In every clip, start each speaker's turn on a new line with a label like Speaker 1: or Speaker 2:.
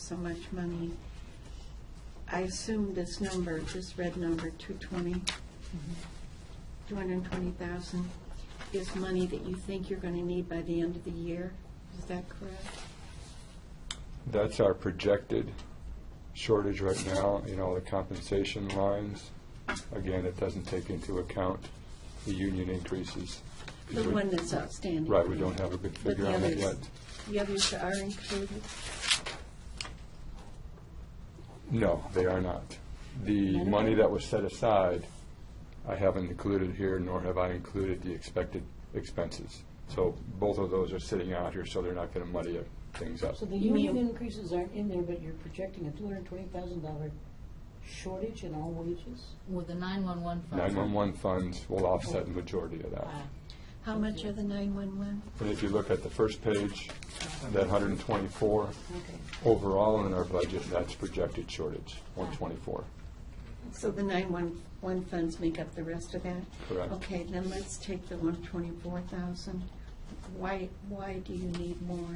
Speaker 1: so much money. I assume this number, this red number, 220, 220,000, is money that you think you're going to need by the end of the year? Is that correct?
Speaker 2: That's our projected shortage right now in all the compensation lines. Again, it doesn't take into account the union increases.
Speaker 1: The
Speaker 2: We-
Speaker 1: one that's outstanding?
Speaker 2: Right, we don't have a good
Speaker 1: But
Speaker 2: figure
Speaker 1: the
Speaker 2: on that
Speaker 1: others,
Speaker 2: yet.
Speaker 1: the others are included?
Speaker 2: No, they are not. The
Speaker 1: None?
Speaker 2: money that was set aside, I haven't included here, nor have I included the expected expenses. So both of those are sitting out here, so they're not going to muddy uh, things up.
Speaker 3: So the
Speaker 1: You mean-
Speaker 3: union increases aren't in there, but you're projecting a two hundred and twenty thousand dollar shortage in all wages?
Speaker 4: With the 911 fund.
Speaker 2: 911 funds will offset the majority of that.
Speaker 3: Ah,
Speaker 1: How much are the 911?
Speaker 2: And if you look at the first page, that 124,
Speaker 3: okay.
Speaker 2: overall in our budget, that's projected shortage, 124.
Speaker 1: So the 911 funds make up the rest of that?
Speaker 2: Correct.
Speaker 1: Okay, then let's take the 124,000. Why, why do you need more,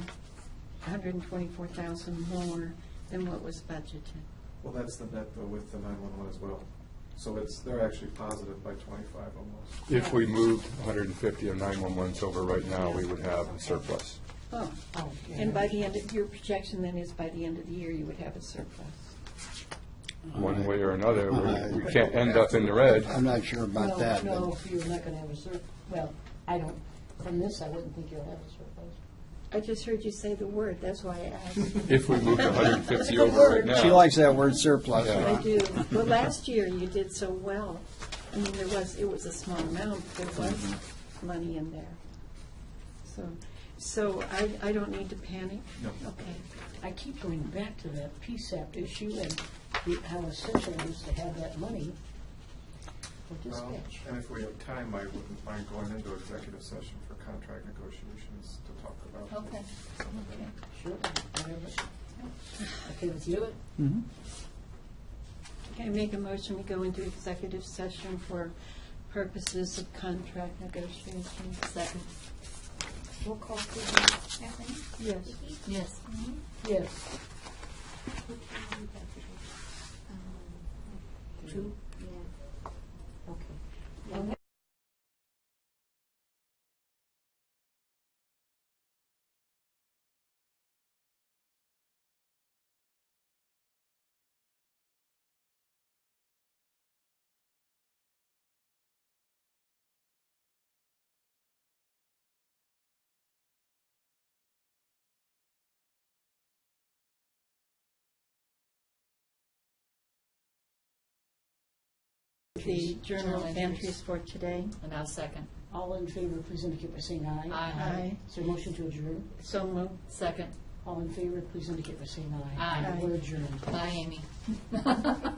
Speaker 1: 124,000 more than what was budgeted?
Speaker 5: Well, that's the net though with the nine-one-one as well. So it's, they're actually positive by twenty-five almost.
Speaker 2: If we moved 150 of 911s over right now, we would have a surplus.
Speaker 1: Oh,
Speaker 3: Oh, yeah.
Speaker 1: and by the end, of your projection then is by the end of the year, you would have a surplus.
Speaker 2: One way or another, we're- we can't end up in the red.
Speaker 6: I'm not sure about
Speaker 3: No,
Speaker 6: that,
Speaker 3: No,
Speaker 6: but
Speaker 3: you're not gonna have a surplus, well, I don't, from this, I wouldn't think you'll have a surplus.
Speaker 1: I just heard you say the word, that's why I asked.
Speaker 2: If we moved 150 over right
Speaker 6: she
Speaker 2: now,
Speaker 6: likes that word surplus.
Speaker 2: Yeah.
Speaker 1: I do. Well, last year you did so well. I mean, there was, it was a small amount, but there was money in there. So, so I, I don't need to panic?
Speaker 5: No.
Speaker 1: Okay.
Speaker 3: I keep going back to that PSAP issue and the- how essential it is to have that money for
Speaker 5: Well,
Speaker 3: dispatch.
Speaker 5: And if we have time, I wouldn't mind going into executive session for contract negotiations to talk about.
Speaker 4: Okay.
Speaker 5: some of that.
Speaker 3: Sure, whatever. Okay with you?
Speaker 1: Can I make a motion, we go into executive session for purposes of contract negotiations?
Speaker 4: Second.
Speaker 3: Roll call, please.
Speaker 7: Kathleen?
Speaker 1: Yes.
Speaker 4: Yes.
Speaker 3: Yes. Two? Yeah. Okay.
Speaker 1: The journal
Speaker 4: Journal
Speaker 1: entries for today?
Speaker 4: And I'll second.
Speaker 3: All in favor, please indicate by saying aye.
Speaker 4: Aye.
Speaker 3: Is there a motion to adjourn?
Speaker 1: So moved.
Speaker 4: Second.
Speaker 3: All in favor, please indicate by saying aye.
Speaker 4: Aye.
Speaker 3: We're adjourned.
Speaker 4: Bye, Amy.